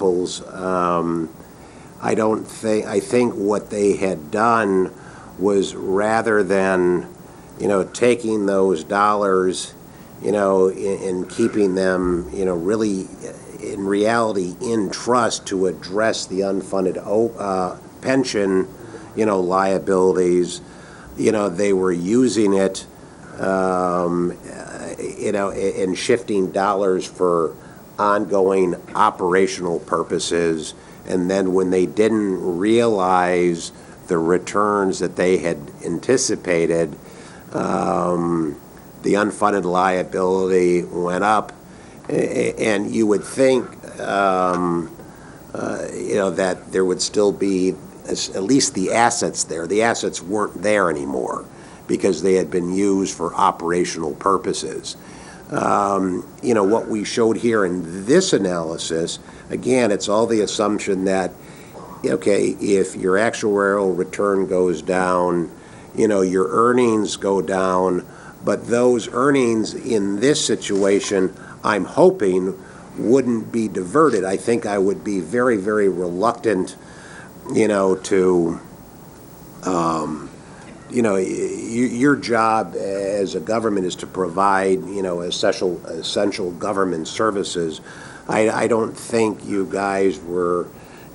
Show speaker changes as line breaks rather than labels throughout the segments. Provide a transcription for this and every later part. samples. Um, I don't think, I think what they had done was rather than, you know, taking those dollars, you know, a- and keeping them, you know, really, uh, in reality, in trust to address the unfunded o- uh, pension, you know, liabilities, you know, they were using it, um, uh, you know, a- and shifting dollars for ongoing operational purposes. And then when they didn't realize the returns that they had anticipated, um, the unfunded liability went up. A- a- And you would think, um, uh, you know, that there would still be as- at least the assets there. The assets weren't there anymore because they had been used for operational purposes. Um, You know, what we showed here in this analysis, again, it's all the assumption that, okay, if your actuarial return goes down, you know, your earnings go down, but those earnings in this situation, I'm hoping, wouldn't be diverted. I think I would be very, very reluctant, you know, to, um, you know, y- y- your job as a government is to provide, you know, essential, essential government services. I, I don't think you guys were,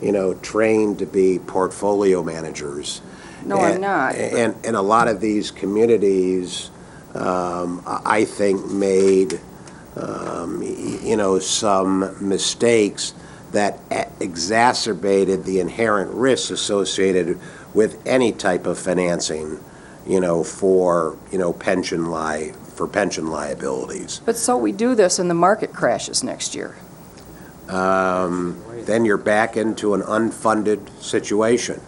you know, trained to be portfolio managers.
No, I'm
And-
not.
And, and a lot of these communities, um, I I think, made, um, y- you know, some mistakes that e- exacerbated the inherent risks associated with any type of financing, you know, for, you know, pension li, for pension liabilities.
But so we do this and the market crashes next year.
Um, Then you're back into an unfunded situation.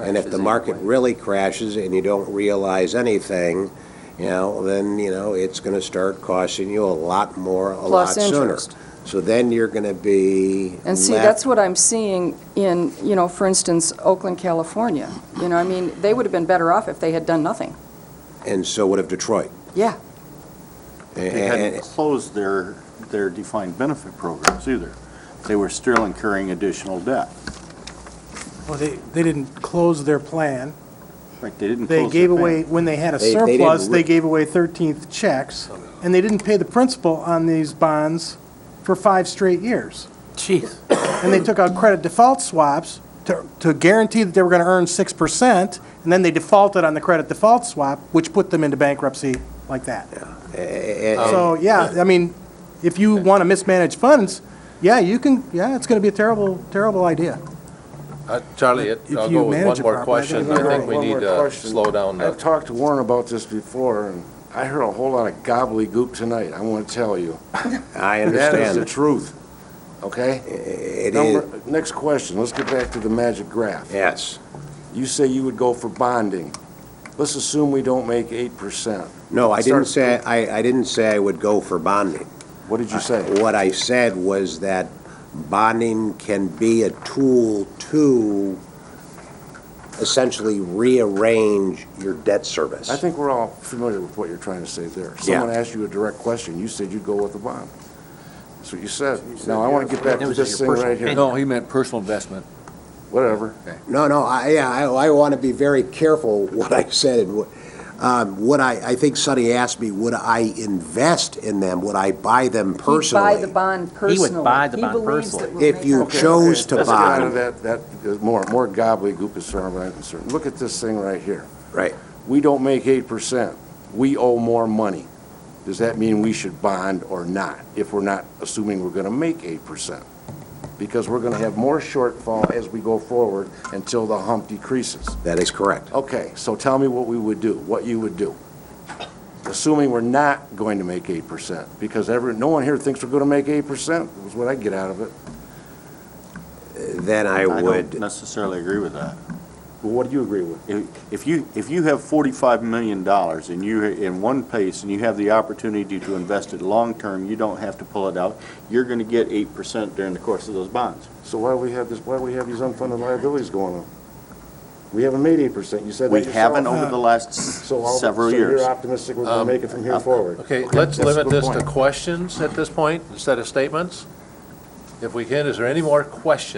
And if the market really crashes and you don't realize anything, you know, then, you know, it's going to start costing you a lot more, a lot
Plus
sooner.
interest.
So then you're going to be
And see,
left-
that's what I'm seeing in, you know, for instance, Oakland, California. You know, I mean, they would have been better off if they had done nothing.
And so would have Detroit.
Yeah.
Eh,
They
And-
hadn't closed their, their defined benefit programs either. They were still incurring additional debt.
Well, they, they didn't close their plan.
Right, they didn't
They
close
gave
their
away,
bank.
when they had a
They- they didn't
surplus,
re-
they gave away 13th checks, and they didn't pay the principal on these bonds for five straight years. Jeez. And they took out credit default swaps to, to guarantee that they were going to earn 6%, and then they defaulted on the credit default swap, which put them into bankruptcy like that.
and- and-
So, yeah, I mean, if you want to mismanage funds, yeah, you can, yeah, it's going to be a terrible, terrible idea.
Uh, Charlie, it-
If
I'll
you
go with
manage
one
it
more
properly, I think
question.
you're
I
right.
think we
One
need
more
to
question.
slow down
I've
that.
talked to Warren about this before, and I heard a whole lot of gobbledygook tonight, I want to tell you.
I
That is the
understand.
truth, okay?
It is,
Number- Next question, let's get back to the magic graph.
yes.
You say you would go for bonding. Let's assume we don't make 8%.
No, I didn't say,
Start-
I, I didn't say I would go for bonding.
What did you say?
What I said was that bonding can be a tool to essentially rearrange your debt service.
I think we're all familiar with what you're trying to say there.
Yeah.
Someone asked you a direct question, you said you'd go with a bond. That's what you said. Now, I want to get back to this thing right here.
No, he meant personal investment.
Whatever.
No, no, I, yeah, I, I want to be very careful what I said and what, um, would I, I think Sonny asked me, would I invest in them? Would I buy them
He'd buy the
personally?
bond personally.
buy the
He
bond
believes that
personally.
we'll
If
make
you
our-
Okay,
chose
okay,
to
let's get
bond.
out of that, that, more, more gobbledygook as far as I'm concerned. Look at this thing right here.
Right.
We don't make eight percent. We owe more money. Does that mean we should bond or not, if we're not assuming we're gonna make eight percent? Because we're gonna have more shortfall as we go forward until the hump decreases.
That is correct.
Okay, so tell me what we would do, what you would do. Assuming we're not going to make eight percent, because every, no one here thinks we're gonna make eight percent, is what I get out of it.
Then I
I don't
would,
necessarily agree with that.
Well, what do you agree with?
If if you, if you have $45 million and you're in one place and you have the opportunity to invest it long-term, you don't have to pull it out, you're going to get 8% during the course of those bonds.
So why do we have this, why do we have these unfunded liabilities going on? We haven't made eight percent, you said that
We
yourself.
haven't over the last s-
So all-
several
so
years. Um,
you're optimistic we're gonna make it from here forward?
Okay, let's
that's a
limit
good
this to
point.
questions at this point instead of statements. If we can, is there any more questions?